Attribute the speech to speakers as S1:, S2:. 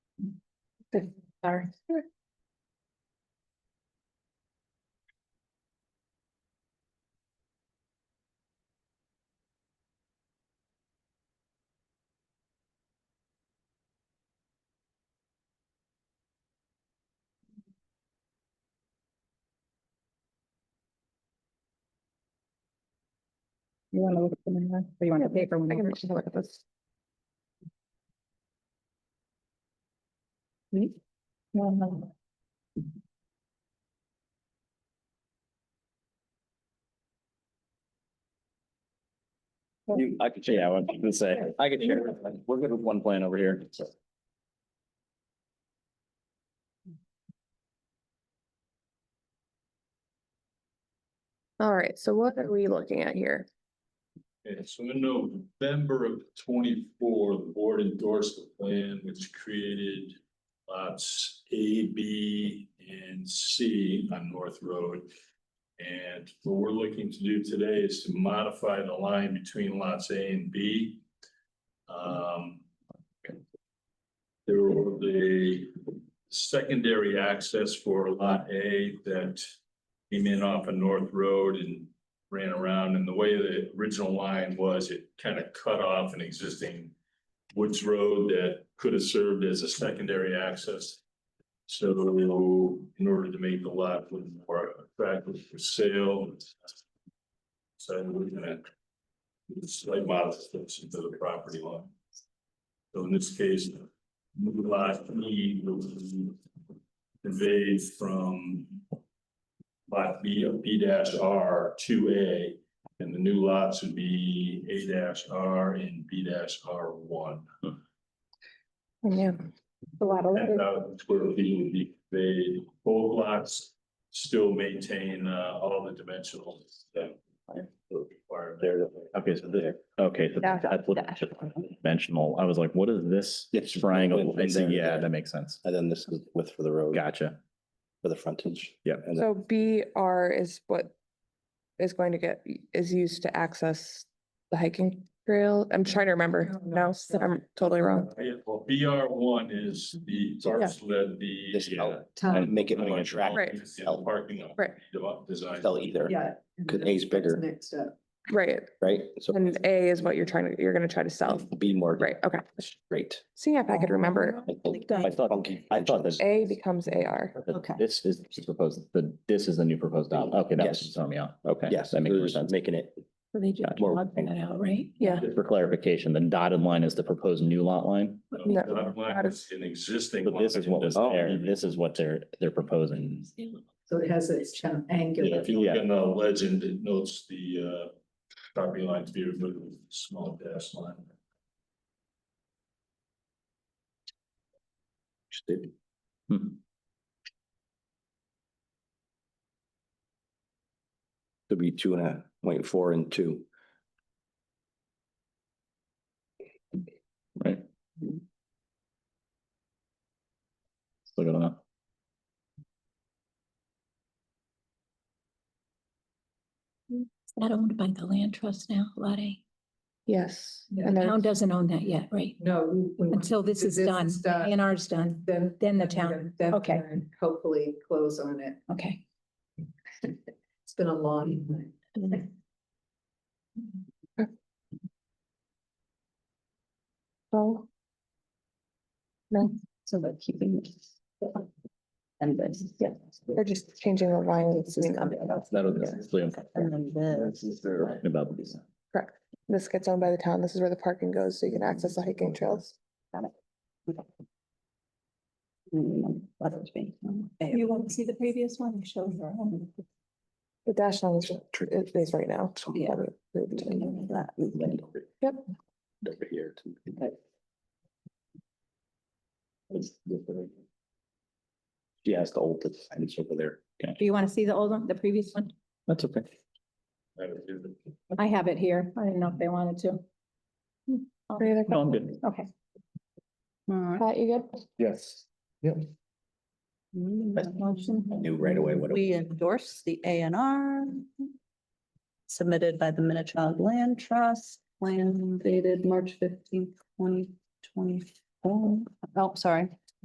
S1: Good, Sorry.
S2: You want to look at the minutes, or you want
S1: Yeah,
S2: the paper
S1: I can
S2: one?
S1: just look at this.
S2: Me? No, no.
S3: You, I could, yeah, I was gonna say, I could share. We're good with one plan over here.
S1: All right, so what are we looking at here?
S4: Okay, so in November of twenty-four, the board endorsed the plan which created lots A, B, and C on North Road. And what we're looking to do today is to modify the line between lots A and B. Um. There were the secondary access for lot A that came in off of North Road and ran around and the way the original line was, it kind of cut off an existing woods road that could have served as a secondary access. So in order to make the lot look more attractive for sale. So we're gonna slight modifications to the property line. So in this case, new lot E will be conveyed from lot B of B dash R to A. And the new lots would be A dash R and B dash R one.
S1: Yeah,
S2: The lateral,
S4: Ten thousand square feet would be conveyed, both lots still maintain uh all the dimensional that were required there.
S3: There, okay, so there, okay, so
S1: Dash,
S3: that's what
S1: dash.
S3: dimensional. I was like, what is this
S5: It's just
S3: triangle?
S5: went from
S3: I see,
S5: there to
S3: Yeah,
S5: there.
S3: that makes sense.
S5: And then this is width for the road,
S3: Gotcha.
S5: for the frontage.
S3: Yeah.
S5: And then
S1: so B R is what is going to get, is used to access the hiking trail. I'm trying to remember. Oh, No, I'm totally wrong.
S4: Yeah, well, B R one is the parcel that the.
S5: this
S4: uh,
S5: out,
S1: Um,
S5: and make it more attractive.
S1: Right.
S4: Yeah, the Parking lot.
S1: Right.
S4: develop- Design.
S5: Sell either,
S6: Yeah.
S5: Could A's bigger.
S6: Next up.
S1: Right,
S5: right? So
S1: and A is what you're trying to, you're gonna try to sell.
S5: be more
S1: Right, okay.
S5: straight.
S1: Seeing if I could remember,
S5: I think- I thought, I thought this.
S1: A becomes A R.
S3: But
S6: Okay.
S3: This is the proposed, the, this is the new proposed, op- okay, that was
S5: Yes.
S3: just throwing me off. Okay.
S5: Yes,
S3: That makes more
S5: we're
S3: sense.
S5: just making it
S6: They just
S3: More-
S6: logged that out, right?
S1: Yeah.
S3: For clarification, the dotted line is the proposed new lot line.
S4: No,
S1: No.
S4: bottom line is An existing.
S3: So this
S4: lot.
S3: is what was
S4: Yeah,
S3: there. This is what they're, they're proposing.
S6: So it has its kind of angular.
S4: If you look
S3: Yeah.
S4: in the legend, it notes the uh property line to be removed, with a small dash line.
S3: Hmm.
S5: to be two and a point four and two.
S3: Right. Still good enough.
S7: That owned by the land trust now, Lot A.
S1: Yes.
S7: The
S1: And
S7: town
S1: there's,
S7: doesn't own that yet, right?
S6: No. we- we want
S7: Until
S6: to
S7: this
S6: do
S7: is done, A
S6: Mm-hmm. Done.
S7: and R's done,
S6: Then.
S7: then the town,
S6: then
S7: okay.
S6: and Hopefully close on it.
S7: okay.
S6: It's been a long
S7: Mm-hmm.
S6: time.
S1: oh,
S2: so they're keeping. And this, yeah.
S1: they're just changing the line. between them.
S3: That'll.
S1: Yeah.
S2: And then this.
S3: About these.
S1: Correct. This gets owned by the town. This is where the parking goes, so you can access the hiking trails.
S7: You won't see the previous one, it shows your own.
S1: The dash line is, it is right now.
S7: Yeah.
S1: Yep.
S5: Over here. She has the old fence over there.
S7: Do you want to see the old one, the previous one?
S3: That's okay.
S4: That would be the-
S7: I have it here. I didn't know if they wanted to.
S1: Any other
S3: No, I'm good.
S7: Okay.
S1: que- Pat, you good?
S3: Yes.
S5: Knew right away what it
S8: We endorse the A and R submitted by the Minnetonka Land Trust, plan dated March fifteenth, twenty twenty-four. Oh, sorry,